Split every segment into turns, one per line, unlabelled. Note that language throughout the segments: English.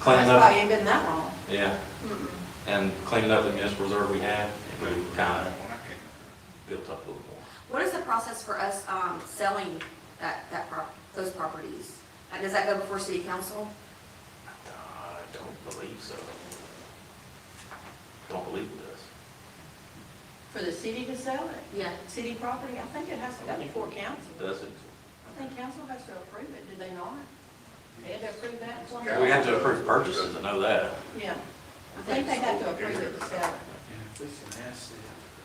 That's
cleaned
probably
up,
ain't been that long.
yeah,
Mm-mm.
and cleaned up the municipal reserve we had, and we kind of built up a little more.
What is the process for us um, selling that, that, prop- those properties? Uh, Does that go before city council?
I don't believe so. Don't believe it does.
For the city to sell it,
Yeah.
city property, I think it has to go before council.
Does it?
I think council has to approve it, do they not? They had to approve that one?
We have to approve purchases, I know that.
Yeah, I think they have to approve it to sell it.
If we can ask them,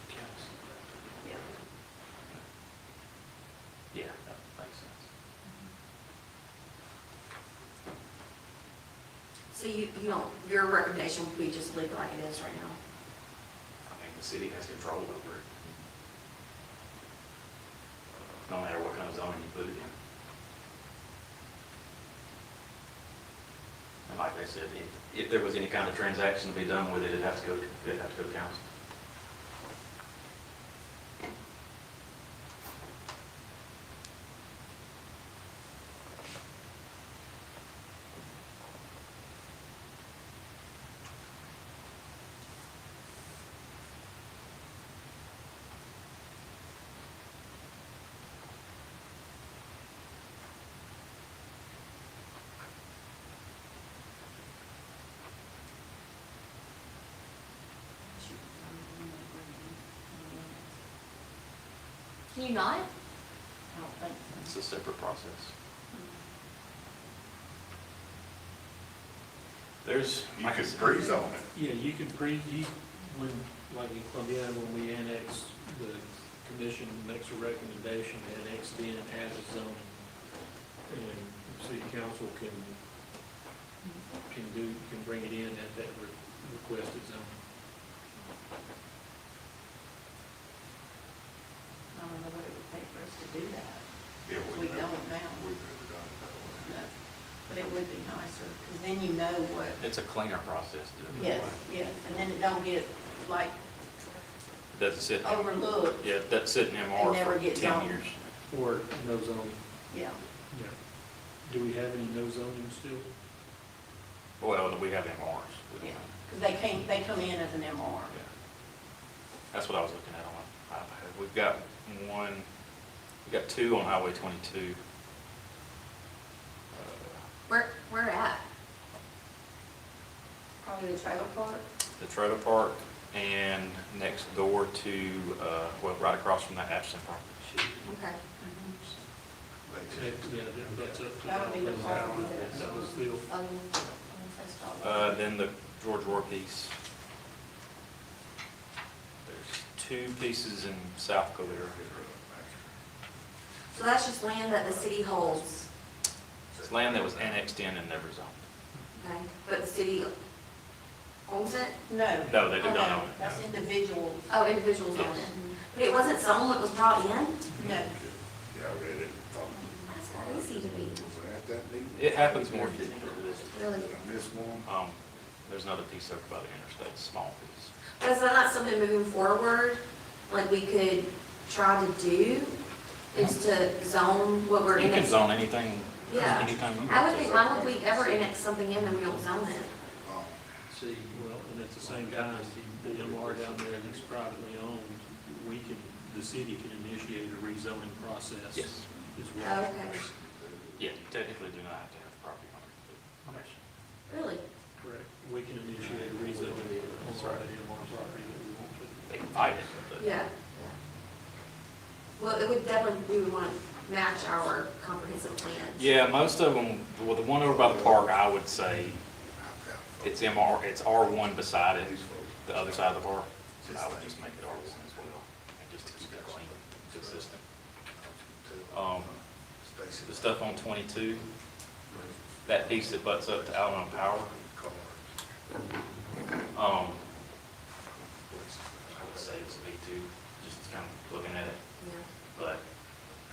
the council.
Yeah.
Yeah, that makes sense.
So you, you don't, your recommendation would be just leave it like it is right now?
I mean, the city has control over it. No matter what kind of zoning you put it in. And like they said, if, if there was any kind of transaction to be done with it, it'd have to go, it'd have to go to council.
Can you not?
I don't think so.
It's a separate process. There's.
You
like I
could
said-
freeze on it.
Yeah, you can pre, you, when, like in Columbia, when we annexed, the commission makes a recommendation to annex in as a zone. And city council can, can do, can bring it in at that re- requested zone.
I don't know what it would take for us to do that.
Yeah,
We
we've
don't
never-
now.
we've never done it
No. But it would be nicer, because then you know what,
It's a cleaner process to do it.
yes, yes, and then it don't get like
It Doesn't sit,
overlooked,
yeah, it doesn't sit in
And never
MR for
get
ten
zoned.
years.
Or no zoning,
yeah.
yeah. Do we have any no zoning still?
Well, we have MRs. We don't
Yeah.
have-
Because they came, they come in as an MR.
Yeah. That's what I was looking at on my iPad. We've got one, we've got two on Highway 22. Uh,
Where, where at?
Probably the trailer park.
The trailer park and next door to, uh, well, right across from that Ashton property.
Okay.
They
Yeah,
just-
that- that's up to.
That would be the part we did.
That was still,
Um,
Uh, Then the George Roar piece. There's two pieces in South Calera.
So that's just land that the city holds,
It's land that was annexed in and never zoned.
okay? But the city owns it?
No.
No, they did not
Okay,
own it,
That's
no.
individuals.
Oh, individuals own it. But it wasn't sold, it was brought in?
No.
Yeah, I read it. Thought-
That's crazy to me.
Was it at that meeting?
It happens more.
Really?
Did I miss one?
Um, There's another piece over by the interstate, small piece.
But is that not something moving forward, like we could try to do, is to zone what we're
You can
annexing?
zone anything,
Yeah.
anytime you want.
I would think, why would we ever annex something in and we don't zone it?
Oh,
see, well, and at the same time, the MR down there that's privately owned, we can, the city can initiate a rezoning process.
Yes.
As well.
Okay.
Yeah, you technically do not have to have property on it.
Really?
Correct. We can initiate a rezoning on
That's
our
right.
MR property that we want to.
They can fight it, but.
Yeah. Well, it would definitely, we would want to match our comprehensive plan.
Yeah, most of them, well, the one over by the park, I would say
I've got-
it's MR, it's R1 beside it, the other side of the park. So I would just make it R1 as well, and just to keep it clean, consistent. Um,
Stacy.
The stuff on 22, that piece that butts up to Allen Power,
Car.
um, I would say it's B2, just kind of looking at it,
Yeah.
but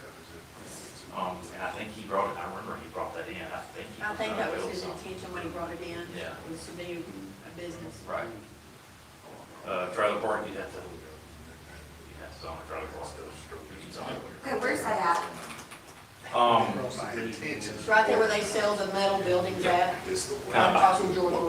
Covers it.
Um, and I think he brought it, I remember he brought that in, I think he
I
was
think
gonna
that was
build
his
something.
intention when he brought it in.
Uh, Yeah.
Was to do a business.
Right. Uh, trailer park, you'd have to, you'd have to own a trailer park. You can zone it.
Okay, where's that
Um,
Across the
My
bridge.
intentions.
Right there where they sell the metal buildings at,
This the way.
across from Jordan